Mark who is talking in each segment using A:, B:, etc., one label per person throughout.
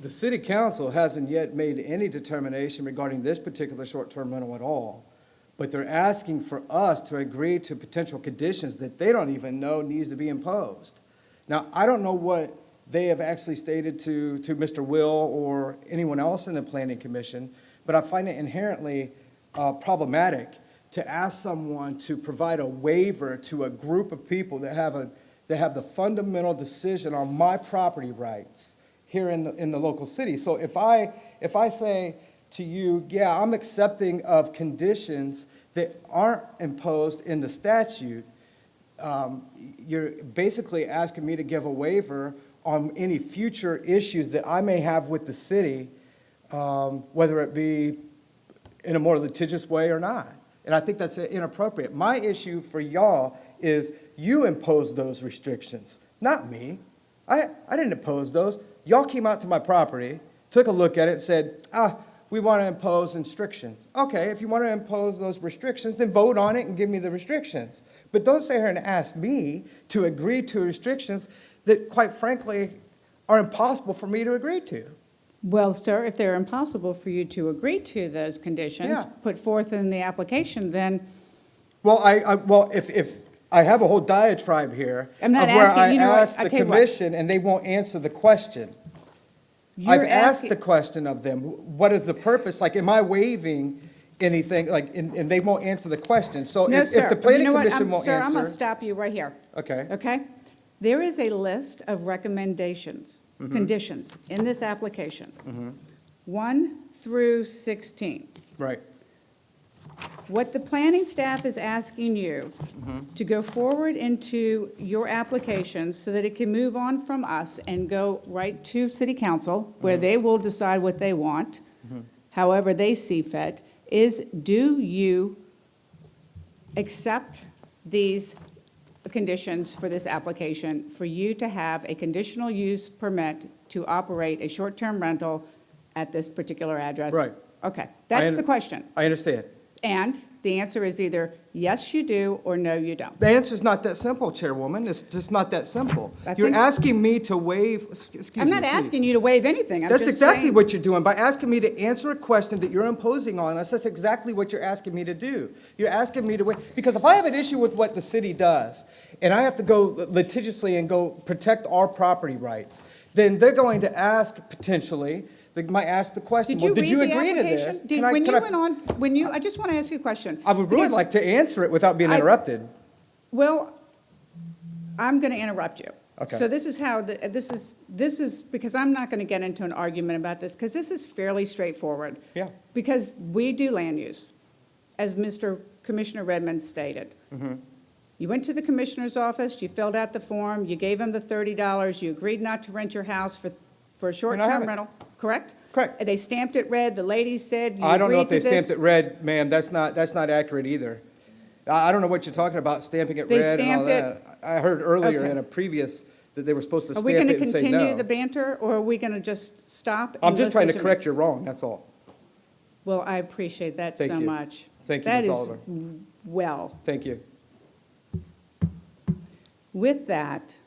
A: The city council hasn't yet made any determination regarding this particular short-term rental at all. But they're asking for us to agree to potential conditions that they don't even know needs to be imposed. Now, I don't know what they have actually stated to, to Mr. Will or anyone else in the planning commission, but I find it inherently uh, problematic to ask someone to provide a waiver to a group of people that have a, that have the fundamental decision on my property rights here in, the- in the local city. So if I, if I say to you, yeah, I'm accepting of conditions that aren't imposed in the statute, um, you're basically asking me to give a waiver on any future issues that I may have with the city, um, whether it be in a more litigious way or not. And I think that's inappropriate. My issue for y'all is you imposed those restrictions, not me. I, I didn't impose those. Y'all came out to my property, took a look at it, said, ah, we want to impose restrictions. Okay, if you want to impose those restrictions, then vote on it and give me the restrictions. But don't sit here and ask me to agree to restrictions that quite frankly are impossible for me to agree to.
B: Well, sir, if they're impossible for you to agree to those conditions
A: Yeah.
B: put forth in the application, then
A: Well, I, I, well, if, if, I have a whole diatribe here.
B: I'm not
A: of where
B: asking-
A: I
B: you know what?
A: asked
B: I'll
A: the
B: tell you what.
A: commission and they won't answer the question. I've
B: you're
A: asked the
B: asking,
A: question of them, what is the purpose? Like, am I waiving anything? Like, and, and they won't answer the question. So
B: no,
A: if, if
B: sir.
A: the
B: You
A: planning
B: know what?
A: commission
B: I'm-
A: won't
B: Sir, I'm going to
A: answer.
B: stop you right here.
A: Okay.
B: Okay? There is a list of recommendations,
A: Mm-hmm.
B: conditions in this application. One through 16.
A: Right,
B: What the planning staff is asking you
A: Mm-hmm.
B: to go forward into your application so that it can move on from us and go right to city council, where
A: Mm-hmm.
B: they will decide what they want, however they see fit, is do you accept these conditions for this application for you to have a conditional use permit to operate a short-term rental at this particular address?
A: Right.
B: Okay, that's
A: un-
B: the question.
A: I understand.
B: And the answer is either yes, you do, or no, you don't.
A: The answer's not that simple, Chairwoman. It's just not that simple.
B: I
A: You're
B: think-
A: asking me to waive, excuse me.
B: I'm not
A: please.
B: asking you to waive anything, I'm just
A: That's
B: saying.
A: exactly what you're doing. By asking me to answer a question that you're imposing on us, that's exactly what you're asking me to do. You're asking me to wait, because if I have an issue with what the city does, and I have to go litigiously and go protect our property rights, then they're going to ask potentially, they might ask the question,
B: Did
A: well,
B: you
A: did
B: read
A: you
B: the
A: agree to this?
B: application? Did-
A: Can I-
B: When
A: can
B: you
A: I-
B: went on, when you, I just want to ask you a question.
A: I would really
B: because-
A: like to answer it without being
B: I-
A: interrupted.
B: Well, I'm going to interrupt you.
A: Okay.
B: So this is how, the- this is, this is, because I'm not going to get into an argument about this, because this is fairly straightforward.
A: Yeah.
B: Because we do land use, as Mr. Commissioner Redmond stated.
A: Mm-hmm.
B: You went to the commissioner's office, you filled out the form, you gave him the $30, you agreed not to rent your house for, for a
A: have
B: short-term
A: it.
B: rental, correct?
A: Correct.
B: And They stamped it red, the lady said, you
A: I don't know
B: agreed
A: if
B: to
A: they
B: this.
A: stamped it red, ma'am, that's not, that's not accurate either. I, I don't know what you're talking about, stamping it
B: They
A: red and all
B: stamped it-
A: that. I I heard earlier
B: Okay.
A: in a previous, that they were supposed to
B: Are we
A: stamp
B: going to
A: it and say
B: continue
A: no.
B: the banter, or are we going to just stop? and
A: I'm just trying to
B: listen me?
A: correct your wrong, that's all.
B: Well, I appreciate that
A: Thank
B: so
A: you.
B: much.
A: Thank you,
B: That
A: Ms.
B: is
A: Oliver.
B: w- Well,
A: Thank you.
B: with that,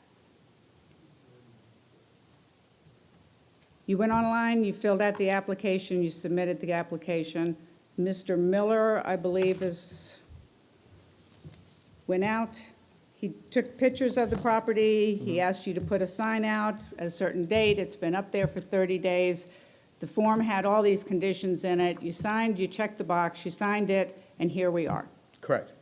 B: you went online, you filled out the application, you submitted the application. Mr. Miller, I believe, is, went out, he took pictures of the property, he asked you to put a sign out at a certain date, it's been up there for 30 days. The form had all these conditions in it, you signed, you checked the box, you signed it, and here we are.
A: Correct.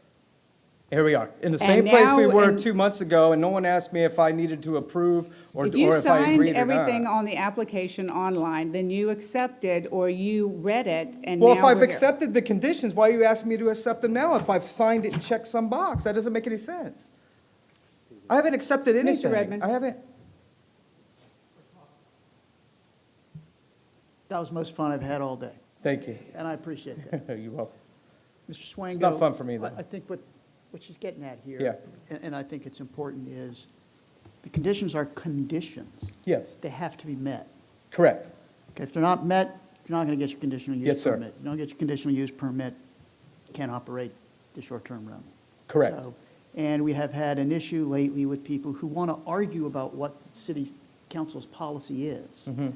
A: Here we are, in the same place we
B: now-
A: were
B: and-
A: two months ago, and no one asked me if I needed to approve or or
B: If you
A: if I
B: signed
A: agreed or
B: everything
A: not.
B: on the application online, then you accepted or you read it and now
A: Well, if I've
B: we're here.
A: accepted the conditions, why are you asking me to accept them now? If I've signed it and checked some box, that doesn't make any sense. I haven't accepted anything.
B: Redmond.
A: I haven't.
C: That was the most fun I've had all day,
A: Thank you.
C: and I appreciate that.
A: You're welcome.
C: Mr. Swango.
A: It's not fun for me, though.
C: I- I think what, what she's getting at here.
A: Yeah.
C: And, and I think it's important is, the conditions are conditions.
A: Yes,
C: They have to be met.
A: correct.
C: Okay, if they're not met, you're not going to get your conditional
A: Yes,
C: use
A: sir.
C: permit. You don't get your conditional use permit, you can't operate the short-term rental.
A: Correct.
C: So- And we have had an
A: Mm-hmm.
C: issue lately with people who want to argue about what city council's policy is.